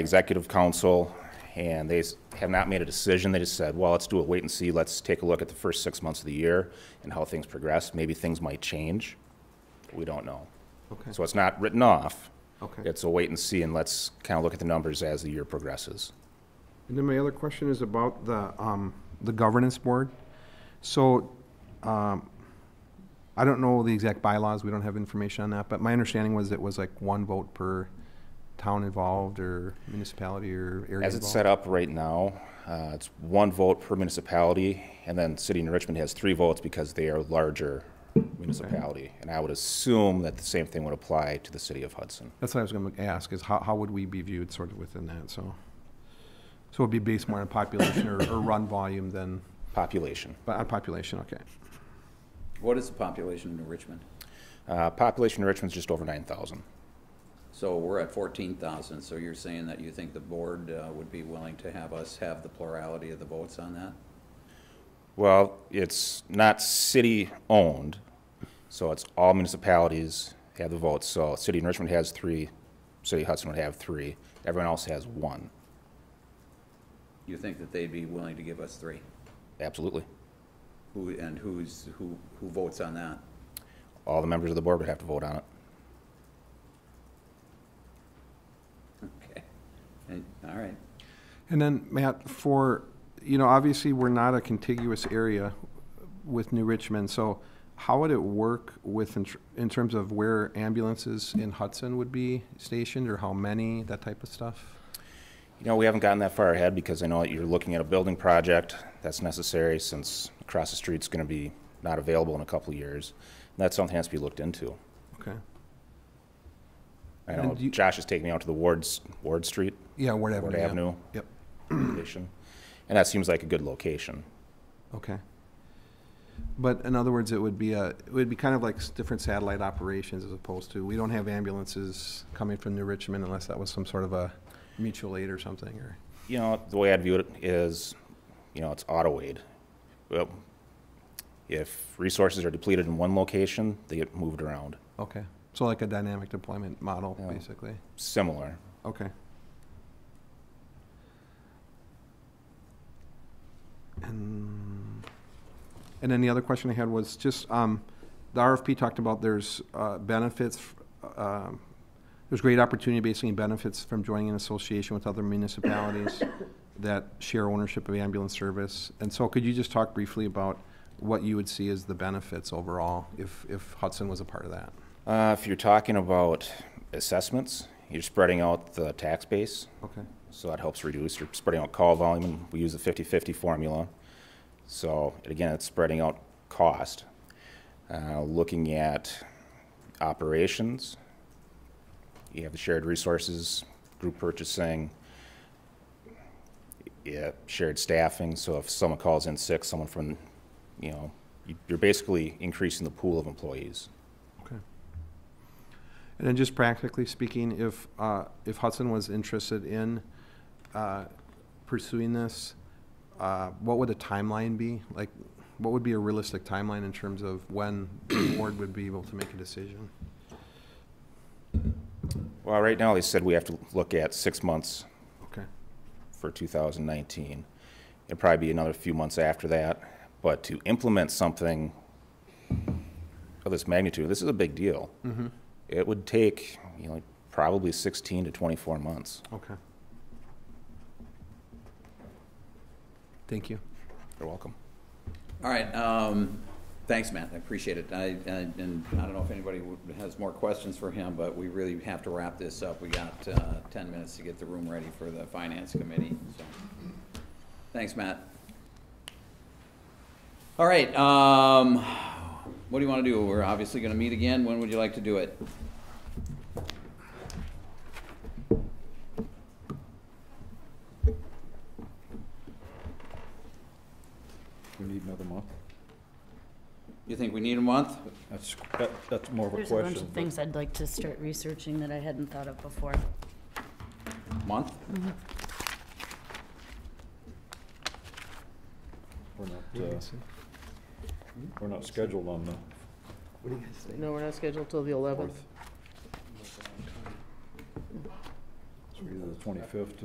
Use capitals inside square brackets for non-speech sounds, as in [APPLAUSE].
executive council, and they s- have not made a decision. They just said, well, let's do a wait and see. Let's take a look at the first six months of the year and how things progress. Maybe things might change. We don't know. Okay. So it's not written off. Okay. It's a wait and see, and let's kind of look at the numbers as the year progresses. And then my other question is about the, um, the governance board. So, um, I don't know the exact bylaws, we don't have information on that, but my understanding was it was like one vote per town involved or municipality or area As it's involved. set up right now, uh, it's one vote per municipality, and then City of New Richmond has three votes because they are a larger municipality. And I would assume that the same thing would apply to the City of Hudson. That's what I was gonna ask, is how, how would we be viewed sort of within that, so. So it'd be based more on population or, or run volume than, Population. but on population, okay. What is the population in Richmond? Uh, Population in Richmond's just over 9,000. So we're at fourteen thousand, so you're saying that you think the board uh, would be willing to have us have the plurality of the votes on that? Well, it's not city-owned, so it's all municipalities have the votes. So City of New Richmond has three, City of Hudson would have three, everyone else has one. You think that they'd be willing to give us three? Absolutely. Who, and who's, who, who votes on that? [LAUGHS] All the members of the board would have to vote on it. Okay, And- all right. And then, Matt, for, you know, obviously, we're not a contiguous area with New Richmond, so how would it work with, in tr- in terms of where ambulances in Hudson would be stationed, or how many, that type of stuff? You know, we haven't gotten that far ahead because I know that you're looking at a building project that's necessary since across the street's going to be not available in a couple of years. And that's something that has to be looked into. Okay. I And know do you- Josh is taking me out to the Ward's, Ward Street Yeah, Ward Avenue. Ward yeah. Avenue. Yep, location, and that seems like a good location. okay. But in other words, it would be a, it would be kind of like s- different satellite operations as opposed to, we don't have ambulances coming from New Richmond unless that was some sort of a mutual aid or something, or, You know, the way I'd view it is, you know, it's auto-aid. Well, if resources are depleted in one location, they get moved around, okay. So like a dynamic deployment model, Yeah. basically. similar. Okay. And and then the other question I had was just, um, the RFP talked about there's uh, benefits, um, there's great opportunity, basically, and benefits from joining an association with other municipalities that share ownership of ambulance service. And so could you just talk briefly about what you would see as the benefits overall if, if Hudson was a part of that? Uh, if you're talking about assessments, you're spreading out the tax base, Okay. so that helps reduce. You're spreading out call volume, and we use the 50-50 formula. So again, it's spreading out cost. Uh, looking at operations, you have the shared resources, group purchasing, yeah, shared staffing. So if someone calls in sick, someone from, you know, you- you're basically increasing the pool of employees. Okay. And then just practically speaking, if, uh, if Hudson was interested in uh, pursuing this, uh, what would the timeline be? Like, what would be a realistic timeline in terms of when the [COUGHS] board would be able to make a decision? Well, right now, they said we have to look at six months Okay, for 2019. It'll probably be another few months after that, but to implement something of this magnitude, this is a big deal. It would take, you know, probably 16 to 24 months. okay. Thank you. You're welcome. All right, um, thanks, Matt, I appreciate it. I, I- and I don't know if anybody would- has more questions for him, but we really have to wrap this up. We got, uh, ten minutes to get the room ready for the finance committee, so. Thanks, Matt. All right, um, what do you wanna do? We're obviously gonna meet again. When would you like to do it? We need another month? You think we need a month? That's, that- that's more of a There's question. a bunch of things I'd like to start researching that I hadn't thought of before. Month? but We're not, uh, we're not scheduled on the No, we're not scheduled till the eleventh. fourth. So either the twenty-fifth